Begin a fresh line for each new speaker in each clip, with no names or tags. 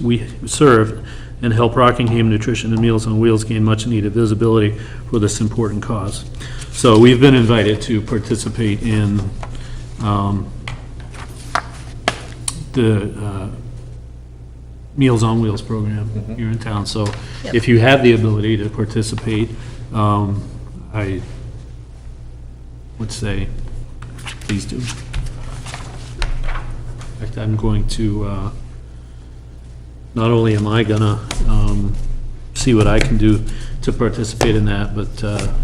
we serve and help Rockingham Nutrition and Meals on Wheels gain much-needed visibility for this important cause. So we've been invited to participate in um, the uh, Meals on Wheels program here in town. So if you have the ability to participate, um, I would say, please do. In fact, I'm going to, uh, not only am I gonna um, see what I can do to participate in that, but uh,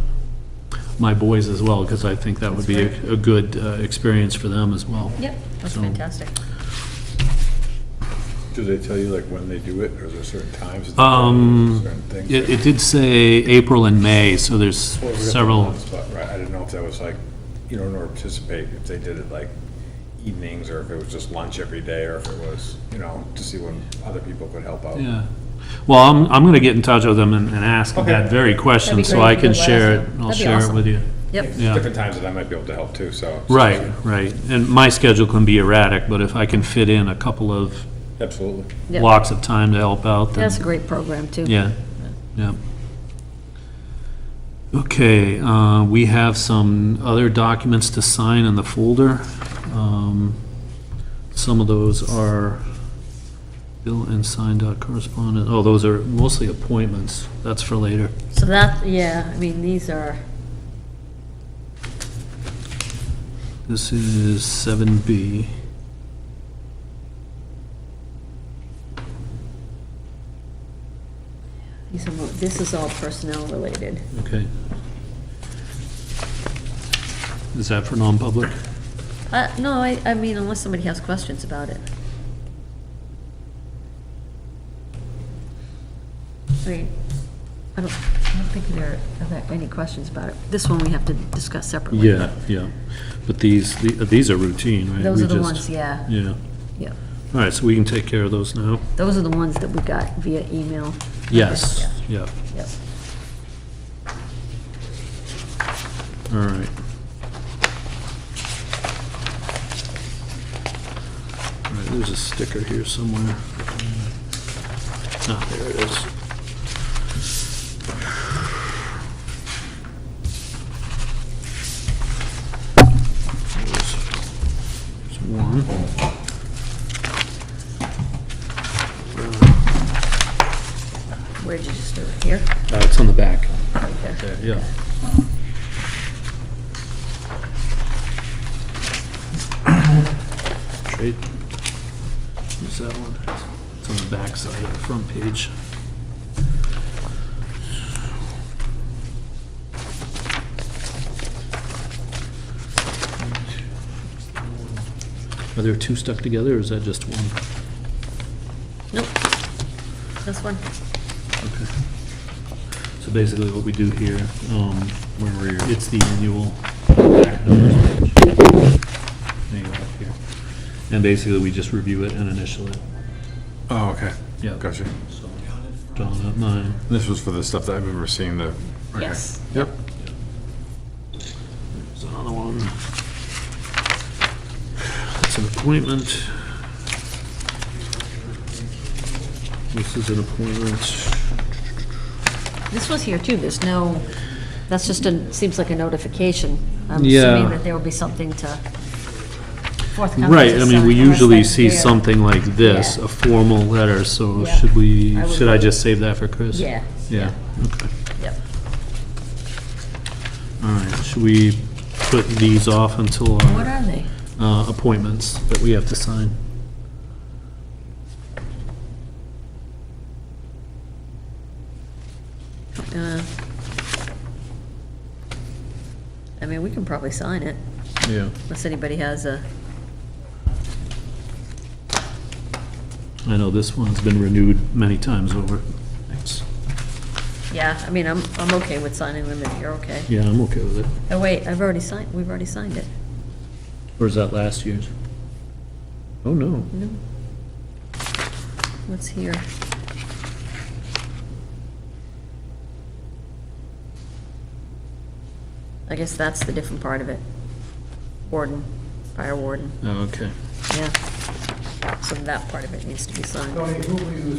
my boys as well, because I think that would be a a good uh, experience for them as well.
Yep, that's
So-
fantastic.
Do they tell you like when they do it, or is there certain times? that they do it,
Um,
Certain things?
It it did say April and May, so there's
Well, we're gonna put them on
several,
the spot, Right, I didn't know if that was like, you know, in order to participate, if they did it like evenings, or if it was just lunch every day, or if it was, you know, to see when other people could help out.
yeah. Well, I'm, I'm gonna get in touch with them and and ask
Okay.
that very question,
That'd be
so
great
I
if you
can
could let
share
us
it,
know.
I'll
That'd be
share it
awesome.
with you.
Yep,
There's
Yeah.
Different times that I might be able to help too, so.
Right, right, and my schedule can be erratic, but if I can fit in a couple of
Absolutely.
Yep.
blocks of time to help out, then...
that's a great program, too.
Yeah, yeah. Okay, uh, we have some other documents to sign in the folder. Um, Some of those are bill and signed dot correspondent, oh, those are mostly appointments, that's for later.
So that, yeah, I mean, these are,
This is 7B.
these are, mo- this is all personnel related.
Okay. Is that for non-public?
Uh, no, I, I mean, unless somebody has questions about it. I mean, I don't, I don't think there are that- any questions about it. This one we have to discuss separately.
Yeah, yeah, but these, the- these are routine, right?
Those
We
are the
just-
ones, yeah,
Yeah,
yeah.
all right, so we can take care of those now.
Those are the ones that we got via email.
Yes,
Yeah,
yeah,
Yep.
all right. All right, there's a sticker here somewhere. Ah, there it is. There's one.
Where did you just do it? Here?
Uh, It's on the back.
Right there.
There, yeah. Trade. Where's that one? It's on the back side of the front page. Are there two stuck together, or is that just one?
Nope. This one?
Okay. So basically what we do here, um, when we're, it's the annual back numbers page. There you go, up here. And basically, we just review it and initial it.
Oh, okay.
Yeah.
Gotcha.
So, John, not mine.
This was for the stuff that I've ever seen, the. okay.
Yes.
Yep.
There's another one. It's an appointment. This is an appointment.
This was here too, there's no, that's just a, seems like a notification. I'm
Yeah.
assuming that there will be something to forthcoming.
Right,
to
I mean, we
some- unless
usually
that's
see
there.
something like this,
Yeah.
a formal letter, so
Yeah.
should we,
I would-
should I just save that for Chris?
Yeah,
Yeah, okay.
yep.
All right, should we put these off until
What
our
are they?
uh, appointments that we have to sign?
Uh, I mean, we can probably sign it,
Yeah.
unless anybody has a,
I know this one's been renewed many times over. Thanks.
yeah, I mean, I'm, I'm okay with signing them if you're okay.
Yeah, I'm okay with it.
Oh, wait, I've already signed, we've already signed it.
Or is that last year's? Oh, no.
No. What's here? I guess that's the different part of it. Warden, fire warden,
Oh, okay.
yeah.
so that part of it needs to be signed.
Tony, who will you